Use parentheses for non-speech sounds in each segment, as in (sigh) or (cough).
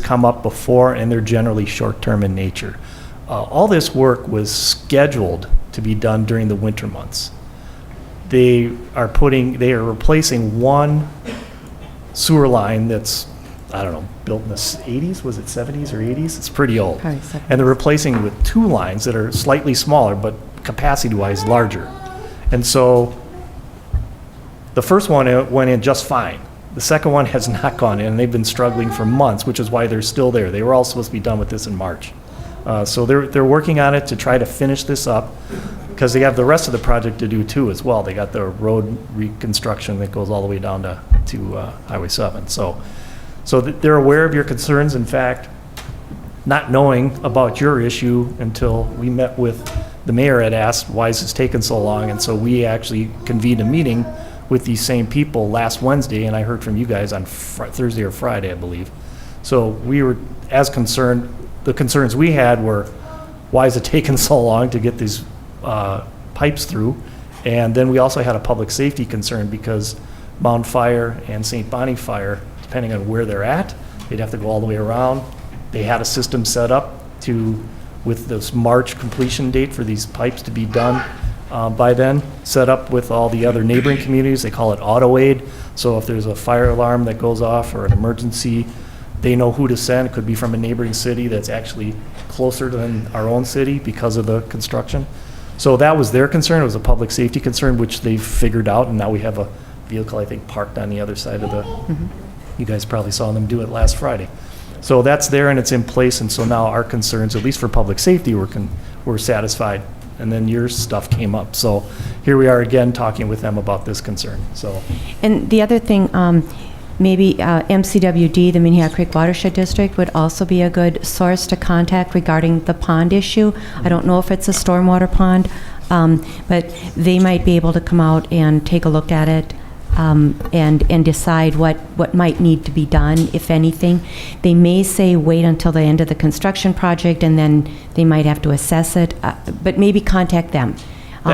come up before, and they're generally short-term in nature. Uh, All this work was scheduled to be done during the winter months. They are putting, they are replacing one sewer line that's, I don't know, built in the s- 80s, was it 70s or 80s? It's pretty old. Probably 70s. And they're replacing it with two lines that are slightly smaller, but capacity-wise larger. And so the first one uh, went in just fine. The second one has (laughs) not gone in, and they've been struggling for months, which is why they're still there. They were all supposed to be done with this in March. Uh, So they're, they're working on it to try to finish this up, because they have the rest of the project to do too as well. They got the road reconstruction that goes all the way down to, to uh, Highway 7. So, so th- they're aware of your concerns. In fact, not knowing about your issue until we met with, the mayor had asked, why is this taking so long? And so we actually convened a meeting with these same people last Wednesday, and I heard from you guys on Fri- Thursday or Friday, I believe. So we were as concerned, the concerns we had were, why is it taking (laughs) so long to get these uh, pipes through? And then we also had a public safety concern because Mound Fire and St. Bonnie Fire, depending on where they're at, they'd have to go all the way around. They had a system set up to, with this March completion date for these pipes to be done uh, by then, set up with all the other neighboring communities. They call it auto aid. So if there's a fire alarm that goes off or an emergency, they know who to send. It could be from a neighboring city that's actually closer than our own city because of the construction. So that was their concern. It was a public safety concern, which they've figured out, and now we have a vehicle, I think, parked on the other side of the, you guys probably saw them do it last Friday. So that's there and it's in place, and so now our concerns, at least for public safety, were, con- were satisfied. And then your stuff came up. So here we are again, talking with them about this concern, so. And the other thing, um, maybe uh, MCWD, the Minnehaha Creek Watershed District, would also be a good source to contact regarding the pond issue. I don't know if it's a stormwater pond, um, but they might be able to come out and take a look at it um, and, and decide what, what might need to be done, if anything. They may say wait until the end of the construction project, and then they might have to assess it, uh, but maybe contact them. That-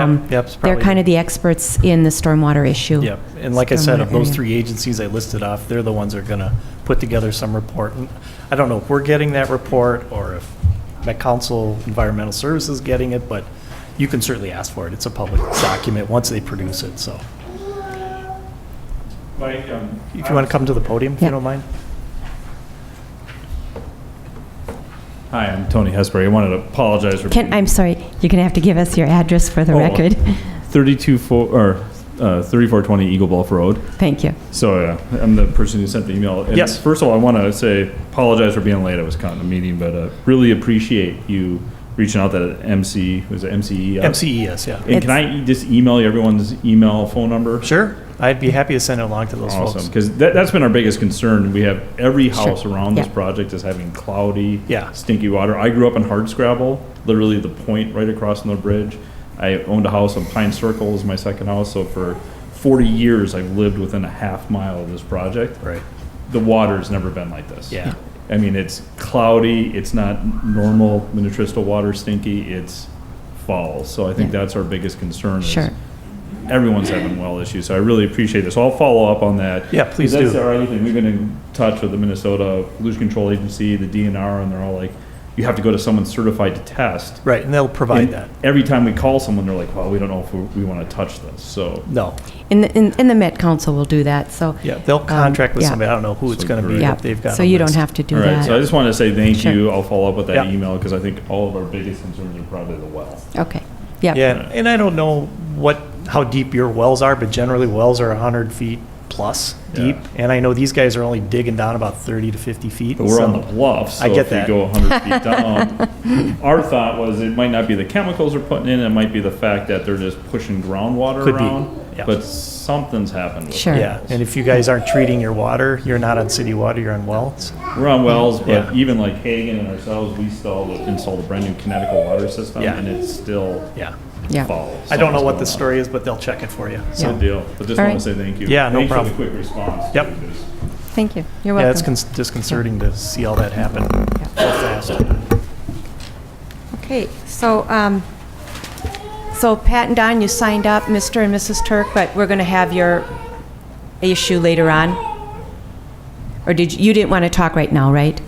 Um, that's They're probably- kind of the experts in the stormwater issue. Yeah, and like I said, of those Stormwater three agencies I listed off, they're the ones that are going to put together some report. And I don't know if we're getting that report or if Met Council Environmental Services is getting it, but you can certainly ask for it. It's a public document once they produce it, so. Mike, um, If you want to come to the podium, if you Yeah. don't mind. Hi, I'm Tony Hesbury. I wanted to apologize for. Can, I'm sorry, you're going to have to give us your address for the Oh, record. (laughs) 32, four- or uh, 3420 Eagle Bluff Road. Thank you. So uh, I'm the person who sent the email. And Yes. First of all, I want to say apologize for being late. I was caught in a meeting, but uh, really appreciate you reaching out to MC, was it MCE? MCES, E yeah. uh, And can I just email you everyone's email, phone number? Sure, I'd be happy to send it along to those Awesome, folks. because that, that's been our biggest concern. We have every Sure. house around this Yeah. project is having cloudy, Yeah. stinky water. I grew up in Hardscrabble, literally the point right across from the bridge. I owned a house on Pine Circle is my second house, so for forty years I've lived within a half mile of this project. Right. The water's never been like this. Yeah. I mean, it's cloudy, it's not normal Minnetrista water stinky, it's fall. So I think Yeah. that's our biggest concern is Sure. everyone's having well issues, so I really appreciate this. I'll follow up on that. Yeah, please That's do. our other thing. We've been in touch with the Minnesota Pollution Control Agency, the DNR, and they're all like, you have to go to someone certified to test. Right, and they'll provide And that. Every time we call someone, they're like, well, we don't know if we, we want to touch this, so. No, And, the- and and the Met Council will do that, so. yeah, they'll um, contract with yeah, somebody, I don't know who it's So going to be, great. Yeah, but they've got so a you don't list. have to do All right, so I that. just want to say thank Sure. you. I'll follow up with that Yeah. email because I think all of our biggest concerns are probably the well. Okay, yeah, Yeah, and I don't know what, how deep your wells are, but generally wells are 100 feet plus deep. And I know these guys are only digging down about 30 to 50 feet. But we're on so- the bluff, so I get if that. we (laughs) go 100 feet down, our thought was it might not be the chemicals they're putting in, it might be the fact that they're just pushing groundwater Could be, around. yeah. But something's happened with Sure. it. Yeah, and if you guys aren't treating your water, you're not on city water, you're on wells. We're on wells, but Yeah. even like Hagen and ourselves, we installed installed a brand new Connecticut water system, Yeah. and it's still Yeah. yeah. fall. I don't know Something's what going the on. story is, but they'll check it for you. It's a So, Yeah. deal. But just All want right. to say thank you. Yeah, no Thanks problem. for the quick response. Yep. too, 'cause- Thank you, you're welcome. yeah, it's cons- disconcerting to see all that happen so fast. Okay, so, um, so Pat and Don, you signed up, Mr. and Mrs. Turk, but we're going to have your issue later on? Or did, you you didn't want to talk right now, right?